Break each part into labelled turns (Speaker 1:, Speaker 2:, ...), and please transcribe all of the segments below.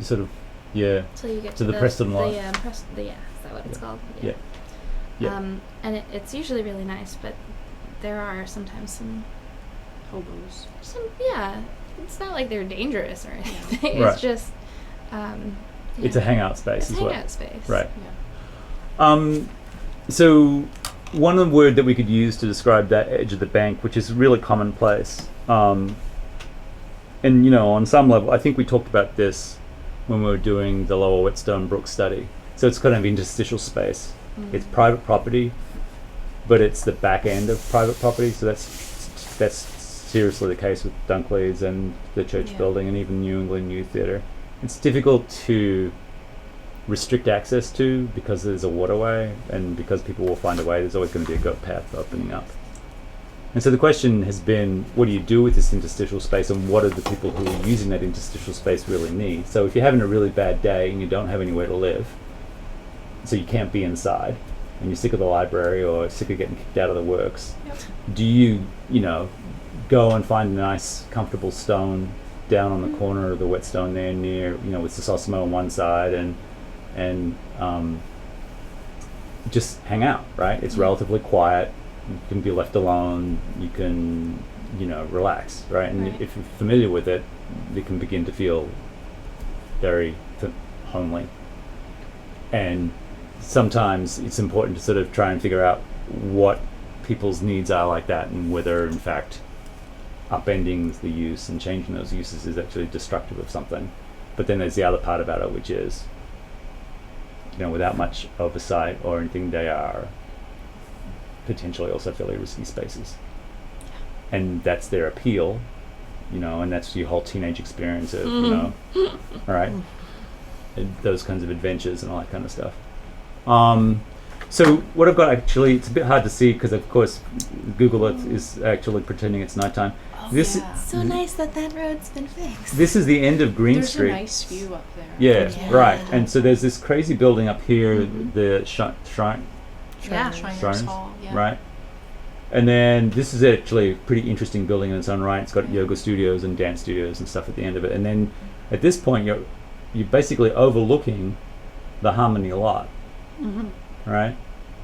Speaker 1: sort of yeah
Speaker 2: till you get
Speaker 1: To
Speaker 2: to,
Speaker 1: the Preston line.
Speaker 2: The, um, Pres- the, yeah, is that what it's called?
Speaker 1: Yeah. Yeah.
Speaker 2: Um, and it, it's usually really nice, but there are sometimes some
Speaker 3: Hobos.
Speaker 2: some yeah. It's not like they're dangerous or anything.
Speaker 1: Right.
Speaker 2: It's just um, yeah.
Speaker 1: it's a hangout space
Speaker 2: It's
Speaker 1: as
Speaker 2: hangout
Speaker 1: well
Speaker 2: space.
Speaker 1: right
Speaker 3: Yeah.
Speaker 1: Um, so, one word that we could use to describe that edge of the bank, which is really commonplace, um, and you know, on some level, I think we talked about this when we were doing the Lower Whetstone Brook study. So it's kind of interstitial space. It's private property, but it's the back end of private property. So that's that's seriously the case with Dunkley's and the church
Speaker 3: Yeah.
Speaker 1: building and even New England New Theatre. It's difficult to restrict access to because there's a waterway and because people will find a way. There's always going to be a goat path opening up. And so the question has been, what do you do with this interstitial space, and what do the people who are using that interstitial space really need? So if you're having a really bad day and you don't have anywhere to live, so you can't be inside and you're sick of the library or sick of getting kicked out of the works,
Speaker 3: Yep.
Speaker 1: do you, you know, go and find a nice, comfortable stone down on the corner of the whetstone there near, you know, with Sosimo on one side and, and, um, just hang out, right? It's
Speaker 3: Mhm.
Speaker 1: relatively quiet. You can be left alone. You can, you know, relax, right? And
Speaker 3: Right.
Speaker 1: if you're familiar with it, you can begin to feel very f- homely. And sometimes it's important to sort of try and figure out what people's needs are like that and whether, in fact, upending the use and changing those uses is actually destructive of something. But then there's the other part about it, which is, you know, without much oversight or anything, they are potentially also fairly risky spaces. And that's their appeal, you know, and that's your whole teenage experience of, you know, all right, and those kinds of adventures and all that kind of stuff. Um, so what I've got actually, it's a bit hard to see because, of course, Google Earth is actually pretending it's nighttime. This-
Speaker 3: yeah.
Speaker 2: So nice that that road's been fixed.
Speaker 1: This is the end of Green
Speaker 3: There's
Speaker 1: Street.
Speaker 3: a nice view up there.
Speaker 1: Yeah,
Speaker 2: Yeah.
Speaker 1: right. And so there's this crazy building up here,
Speaker 3: Mhm.
Speaker 1: the shrine, shrine
Speaker 3: Yeah.
Speaker 2: Shriners.
Speaker 3: Shriners
Speaker 1: Shriners,
Speaker 3: Hall. Yeah.
Speaker 1: right? And then this is actually a pretty interesting building in its own right. It's got
Speaker 3: Mhm.
Speaker 1: yoga studios and dance studios and stuff at the end of it. And then at this point, you're you're basically overlooking the Harmony lot,
Speaker 3: Mm-hmm.
Speaker 1: right?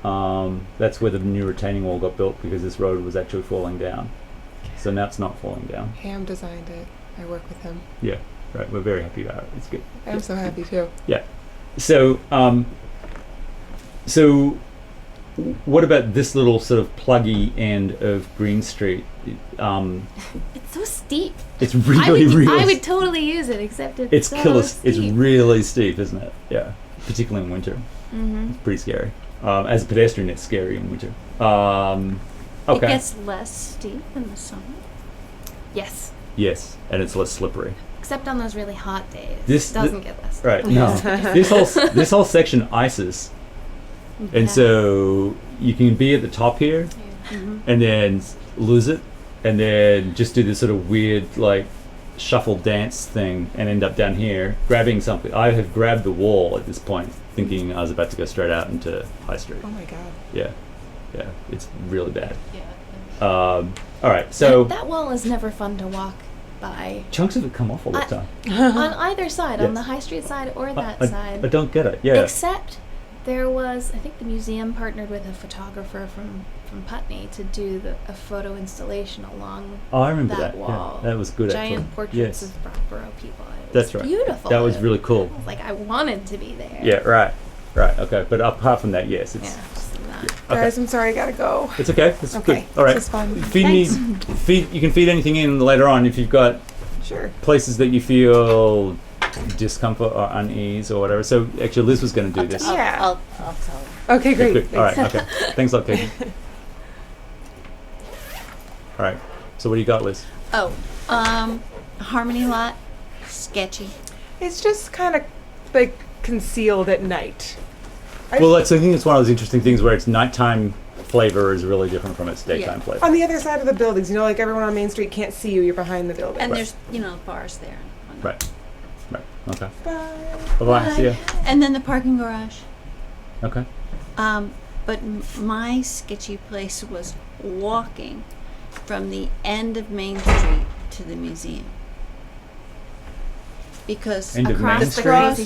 Speaker 1: Um, that's where the new retaining wall got built because this road was actually falling down. So now it's not falling down.
Speaker 4: Ham designed it. I work with him.
Speaker 1: Right, we're very happy about it. It's good.
Speaker 4: I'm so happy too.
Speaker 1: So, um, so what about this little sort of pluggy end of Green Street? It, Um,
Speaker 2: It's so steep.
Speaker 1: it's really,
Speaker 2: I would,
Speaker 1: really.
Speaker 2: I would totally use it, except it's
Speaker 1: it's
Speaker 2: so
Speaker 1: killer.
Speaker 2: Steep.
Speaker 1: It's really steep, isn't it? Yeah, particularly in winter,
Speaker 2: mm-hmm.
Speaker 1: pretty scary. Um, as a pedestrian, it's scary in winter. Um,
Speaker 2: It
Speaker 1: okay.
Speaker 2: gets less steep.
Speaker 3: In the summer.
Speaker 2: Yes,
Speaker 1: Yes, and it's less slippery.
Speaker 2: except on those really hot days.
Speaker 1: This-
Speaker 2: it doesn't get less.
Speaker 1: Right. No. this whole s- this whole section ices, and
Speaker 2: Yeah.
Speaker 1: so you can be at the top here,
Speaker 3: Mm-hmm.
Speaker 1: and then s- lose it, and then just do this sort of weird like shuffle dance thing, and end up down here grabbing something. I have grabbed the wall at this point, thinking I was about to go straight out into High Street.
Speaker 4: Oh my god.
Speaker 1: Yeah, yeah, it's really bad.
Speaker 3: Yeah.
Speaker 1: Um, all right, so
Speaker 2: that wall is never fun to walk by
Speaker 1: chunks of it come off all the
Speaker 2: I-
Speaker 1: time.
Speaker 3: Uh-huh.
Speaker 2: on either side, on the
Speaker 1: Yes. Uh,
Speaker 2: high street side or
Speaker 1: I-
Speaker 2: that
Speaker 1: I,
Speaker 2: side.
Speaker 1: I don't get it. Yeah,
Speaker 2: Except there was, I think the museum partnered with a photographer from from Putney to do the, a photo installation along
Speaker 1: oh, I remember that.
Speaker 2: that wall.
Speaker 1: Yeah, that was good.
Speaker 2: giant
Speaker 1: actually. Yes.
Speaker 2: portraits of Brockborough people. It was
Speaker 1: That's right.
Speaker 2: Beautiful.
Speaker 1: That was really cool.
Speaker 2: I was like I wanted to be there.
Speaker 1: Yeah. Right. Right. Okay. But apart from that, yes, it's
Speaker 2: Yeah. just not-
Speaker 1: Okay.
Speaker 4: Guys, I'm sorry. I gotta go.
Speaker 1: it's okay. It's
Speaker 4: Okay.
Speaker 1: good. All right.
Speaker 4: This is fun.
Speaker 1: feed me feed you can feed anything in later on if you've got
Speaker 4: Sure.
Speaker 1: places that you feel discomfort or unease or whatever so actually liz was going to do this
Speaker 4: I'll- Yeah.
Speaker 3: I'll, I'll tell.
Speaker 1: Okay,
Speaker 4: Okay, great.
Speaker 1: good. all right
Speaker 4: Thanks.
Speaker 1: okay thanks a lot Katie. all right so what do you got liz
Speaker 3: Oh, um, Harmony Lot, sketchy.
Speaker 4: It's just kind of like concealed at night. I
Speaker 1: well that's i think it's one of those interesting things where its nighttime flavor is really different from its daytime
Speaker 3: Yeah.
Speaker 1: flavor
Speaker 4: on the other side of the buildings, you know, like everyone on Main Street can't see you. You're behind the building.
Speaker 3: And
Speaker 1: Right.
Speaker 3: there's, you know, bars there. and whatnot.
Speaker 1: right right okay
Speaker 4: Bye.
Speaker 1: bye-bye see ya
Speaker 3: And then the parking garage.
Speaker 1: okay
Speaker 3: Um, but m- my sketchy place was walking from the end of Main Street to the museum.
Speaker 2: because
Speaker 5: End of Main
Speaker 2: across
Speaker 3: Street.
Speaker 2: across